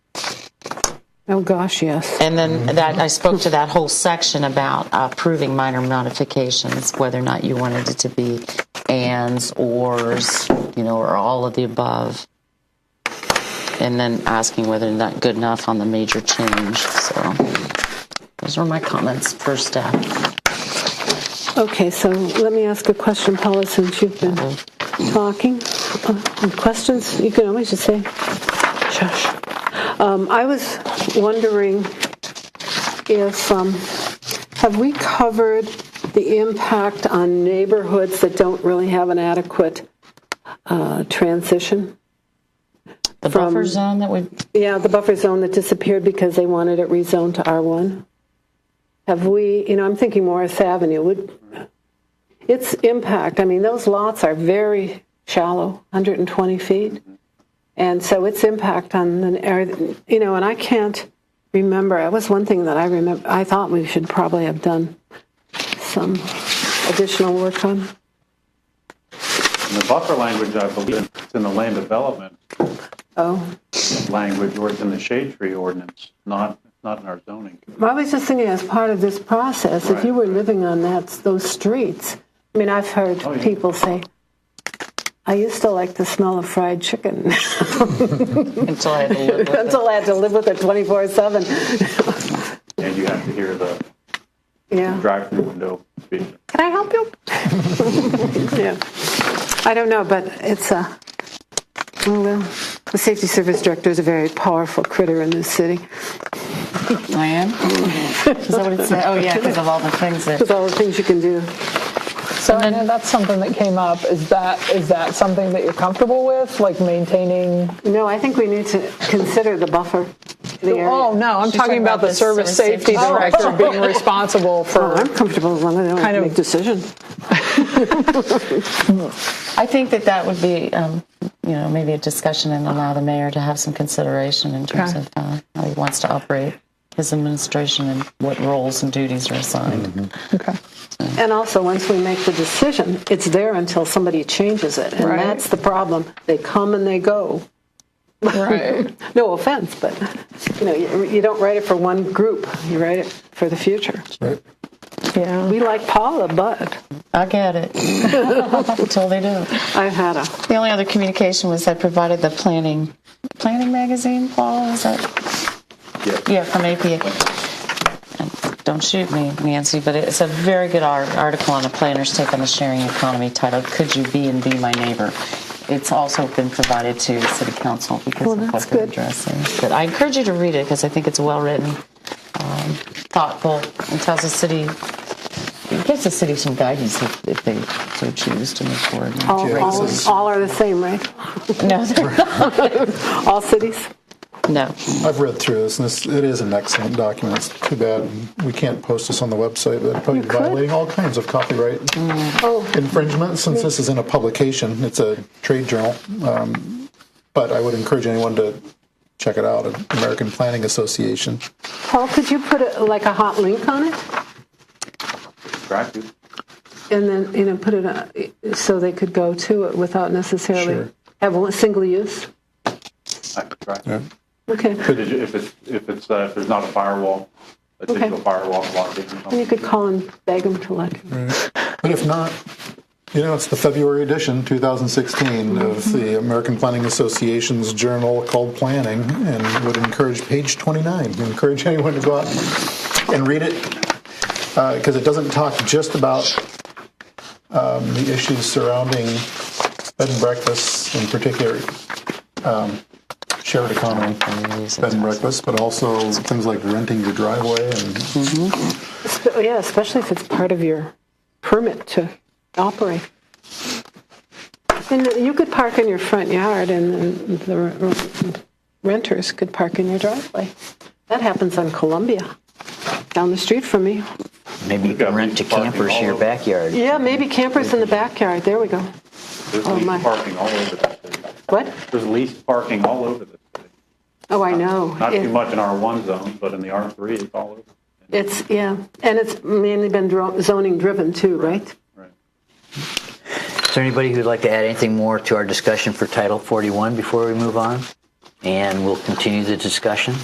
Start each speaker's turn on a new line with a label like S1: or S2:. S1: Oh, gosh, yes.
S2: And then that I spoke to that whole section about uh, approving minor modifications, whether or not you wanted it to be ands, ors, you know, or all of the above. And then asking whether or not good enough on the major change. So those were my comments for staff.
S1: Okay, so let me ask a question, Paula, since you've been talking. Uh, Questions? You can always just say, shush. Um, I was wondering if, um, have we covered the impact on neighborhoods that don't really have an adequate uh, transition?
S2: The
S1: From-
S2: buffer zone that we
S1: Yeah, the buffer zone that disappeared because they wanted it rezoned to R1. Have we, you know, I'm thinking Morris Avenue, would, its impact, I mean, those lots are very shallow, 120 feet. And so its impact on the, area- you know, and I can't remember, that was one thing that I remember, I thought we should probably have done some additional work on.
S3: In the buffer language, I believe it's in the land development
S1: Oh,
S3: language or it's in the shade tree ordinance, not, not in our zoning.
S1: Well, I was just thinking, as part of this process, if you were
S3: Right.
S1: living on that those streets, I mean, I've heard
S3: Oh, yeah.
S1: people say, "I used to like the smell of fried chicken
S2: until I had to live with it.
S1: until I had to live with it twenty four 7
S3: And you have to hear the
S1: Yeah,
S3: drive-through window speak.
S1: can I help you? yeah, I don't know, but it's a. Oh, well, the safety service director is a very powerful critter in this city.
S2: I am. Is that what it said? Oh yeah, because of all the things that.
S1: With all the things you can do.
S4: So I know that's something that came up. Is that is that something that you're comfortable with, like maintaining?
S1: No, I think we need to consider the buffer. The area.
S4: Oh no, I'm
S2: She's
S4: talking
S2: talking
S4: about,
S2: about
S4: the
S2: the
S4: service
S2: service safety
S4: safety director being responsible
S1: Well,
S4: for.
S1: I'm comfortable as long as I don't have
S4: Kind of-
S1: to make decisions.
S2: I think that that would be, um, you know, maybe a discussion and allow the mayor to have some consideration in terms
S4: Okay.
S2: of uh, how he wants to operate his administration and what roles and duties are assigned.
S4: Okay.
S1: And also, once we make the decision, it's there until somebody changes it. And
S4: Right.
S1: that's the problem. They come and they go.
S4: Right.
S1: No offense, but you know, you, you don't write it for one group. You write it for the future.
S5: Right.
S4: yeah.
S1: We like Paula, but
S2: I get it until they do.
S1: I've had a
S2: The only other communication was I provided the planning, planning magazine. Paul, is that?
S3: Yes.
S2: Yeah, from APA. And Don't shoot me, Nancy, but it's a very good ar- article on a planner's take on the sharing economy titled "Could You Be and Be My Neighbor." It's also been provided to City Council because of what
S1: that's
S2: they're
S1: good.
S2: addressing. But I encourage you to read it because I think it's well written, um, thoughtful, and tells the city. It gives the city some guidance if, if they so choose to move forward.
S1: all,
S5: Yeah,
S1: all,
S5: it's-
S1: all are the same, right? oh.
S2: No, they're not.
S1: All cities.
S2: no.
S5: I've read through this, and this, it is an excellent document. It's too bad we can't post this on the website. That'd probably be
S1: could. Mm.
S5: violating all kinds of copyright
S4: Oh.
S5: infringement since this is in a publication. It's a trade journal. Um, but I would encourage anyone to check it out. American Planning Association.
S1: Paul, could you put a, like a hot link on it,
S3: Drive-through.
S1: and then you know, put it uh, so they could go to it without necessarily
S5: Sure.
S1: have one single use.
S3: I could try.
S5: Yeah.
S1: Okay.
S3: Did you- If it's, if it's, uh, if there's not a firewall, a
S1: Okay.
S3: digital firewall blocking. or something.
S1: You could call and beg them to let you.
S5: But if not, you know, it's the February edition, 2016, of the American Planning Association's journal called Planning, and would encourage page 29. Encourage anyone to go out and read it because it doesn't talk just about um, the issues surrounding bed and breakfasts, in particular um, shared economy bed and breakfast, but also things like renting your driveway and
S1: Sp- Yeah, especially if it's part of your permit to operate. And you could park in your front yard, and the r- renters could park in your driveway. That happens on Columbia, down the street from me.
S6: Maybe you can
S3: got
S6: rent to
S3: people parking
S6: campers in
S3: all
S6: your
S3: over.
S6: backyard.
S1: Yeah, maybe campers in the backyard, there we go.
S3: There's
S1: Oh, my.
S3: leased parking all over the city.
S1: What?
S3: There's leased parking all over the city.
S1: Oh, I know.
S3: Not
S1: It-
S3: too much in R1 zone, but in the R3, it's all over.
S1: It's, yeah, and it's mainly been dro- zoning driven too, right?
S3: Right.
S6: Is there anybody who'd like to add anything more to our discussion for Title 41 before we move on? And we'll continue the discussion.